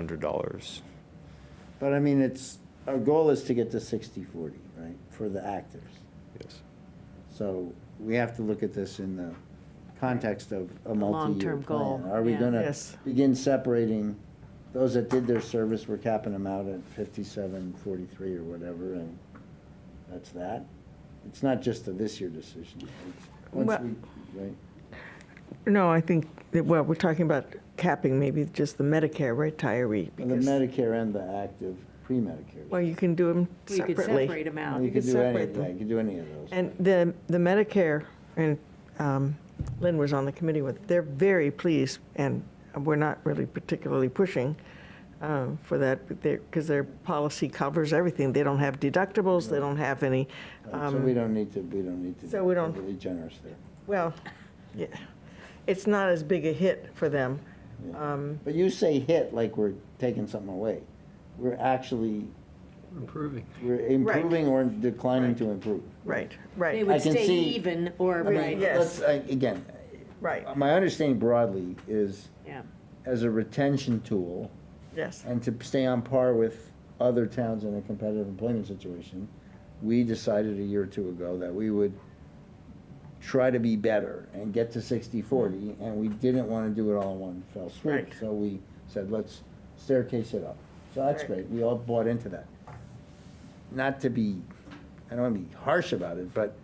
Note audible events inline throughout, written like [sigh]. hundred dollars. But I mean, it's, our goal is to get to 60-40, right, for the actors. Yes. So we have to look at this in the context of a multi-year long-term goal, plan. Are we yeah. gonna Yes. begin separating, those that did their service, we're capping them out at 57, 43 or whatever, and that's that? It's not just a this year decision. It's- Once Well- we, right, No, I think, that- well, we're talking about capping maybe just the Medicare retiree. the because- Medicare and the active pre-Medicare. Well, you can do them You could separately. separate them out. You you could could do any, separate them. yeah, you could do any of those. And the, the Medicare, and um, Lynn was on the committee with, they're very pleased, and we're not really particularly pushing uh, for that, because their policy covers everything. They don't have deductibles, they don't have any, Right, So um, we don't need to, we don't need to. so we don't- be Really generous there. well, yeah, it's not as big a hit for them. Yeah. Um, But you say hit like we're taking something away. We're actually, Improving. we're improving or declining to improve. Right, They right, I would can stay see- even or, I mean, right, yeah. let's, Yes. uh, Again, right, my understanding broadly is yeah. as a retention tool yes. and to stay on par with other towns in a competitive employment situation, we decided a year or two ago that we would try to be better and get to 60 40 and we didn't want to do it all in one fell swoop Right. so we said let's staircase it up so that's Right. great we all bought into that not to be i don't want to be harsh about it but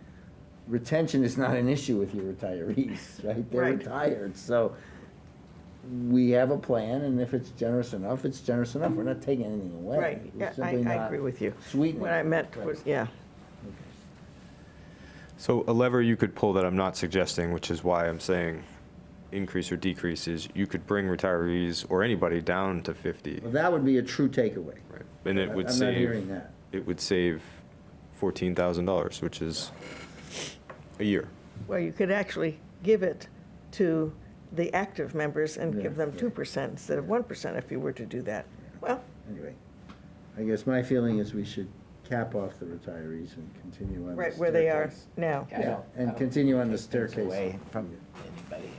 retention is not an issue with your retirees [laughs] right they're Right. retired so we have a plan and if it's generous enough it's generous enough we're not taking anything away Right, We're yeah, I, simply I not agree with you. sweetening What I it. meant Right. was, yeah, So a lever you could pull that I'm not suggesting, which is why I'm saying increase or decrease is you could bring retirees or anybody down to fifty. well, that would be a true takeaway Right. And it I- would I'm not hearing save, that it would save fourteen thousand dollars, which is a year. well, you could actually give it to the active members and give Yeah, them right. 2% instead of 1% if you were to do that. Well, Anyway, I guess my feeling is we should cap off the retirees and continue on the right where they are staircase. now. I Yeah, don't- I and don't continue on the take things staircase. Away from anybody.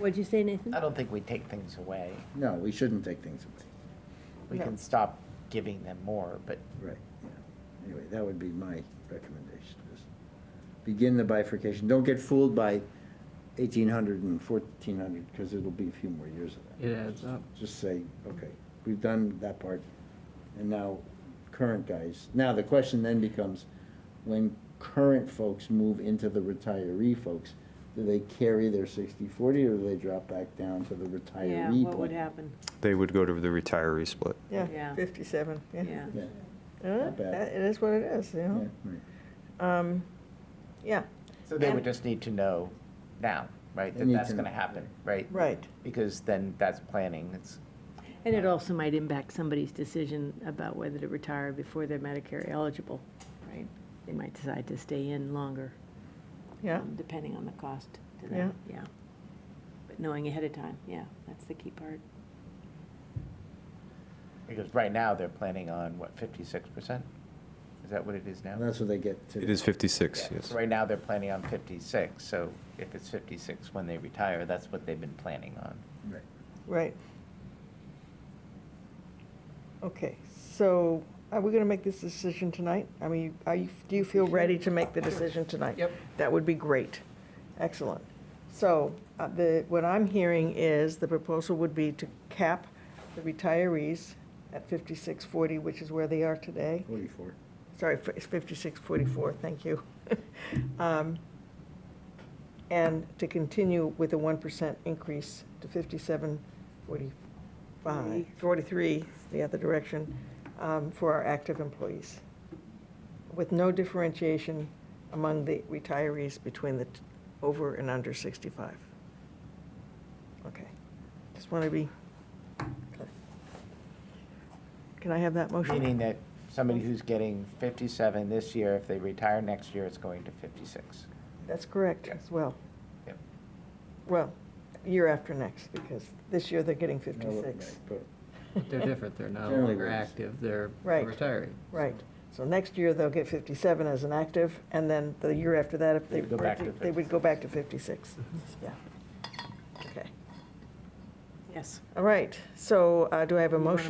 What'd you say, Nathan? I don't think we take things away. No, we shouldn't take things away. We No. can stop giving them more, but Right, yeah. Anyway, that would be my recommendation, is begin the bifurcation. Don't get fooled by 1,800 and 1,400, because it'll be a few more years of that. It adds up. Just say, okay, we've done that part, and now current guys. Now, the question then becomes, when current folks move into the retiree folks, do they carry their 60/40, or do they drop back down to the Yeah, retiree? what would plan? happen? They would go to the retiree split. Yeah, Yeah. 57, yeah. Yeah. Yeah, Uh, Not bad. that- It is what it is, you yeah, know? right. Um, Yeah, so they And- would just need to know now, right? They That need that's to going to know. happen, right? right, Because then that's planning. It's And it also might impact somebody's decision about whether to retire before they're Medicare eligible, right? They might decide to stay in longer, yeah. um, depending on the cost to Yeah. them, yeah. But knowing ahead of time, yeah, that's the key part. because right now they're planning on what fifty-six percent. Is that what it is now? And that's what they get to. It is fifty-six, Yeah. yes. So Right now they're planning on fifty-six. So if it's fifty-six when they retire, that's what they've been planning on. Right. Right. Okay, so are we going to make this decision tonight? I mean, are you, do you feel ready to make the decision tonight? Yep. That would be great. Excellent. So uh, the, what I'm hearing is the proposal would be to cap the retirees at 5640, which is where they are today. Forty-four. Sorry, f- it's 5644, thank you. [laughs] Um, And to continue with a 1% increase to 5745, 43, the other direction, um, for our active employees, with no differentiation among the retirees between the t- over and under 65. Okay, just want to be, clear. can I have that motion? Meaning that somebody who's getting 57 this year, if they retire next year, it's going to 56. That's correct Yeah. as well. Yep. Well, year after next, because this year they're getting No, right, 56. but- They're different. They're no Generally longer works. active. They're Right. retiring. Right. So next year they'll get 57 as an active, and then the year after that, if they, They'd go back to they would go back to 56. Yeah. Okay. Yes. All right. So uh, do I have a You wanna motion?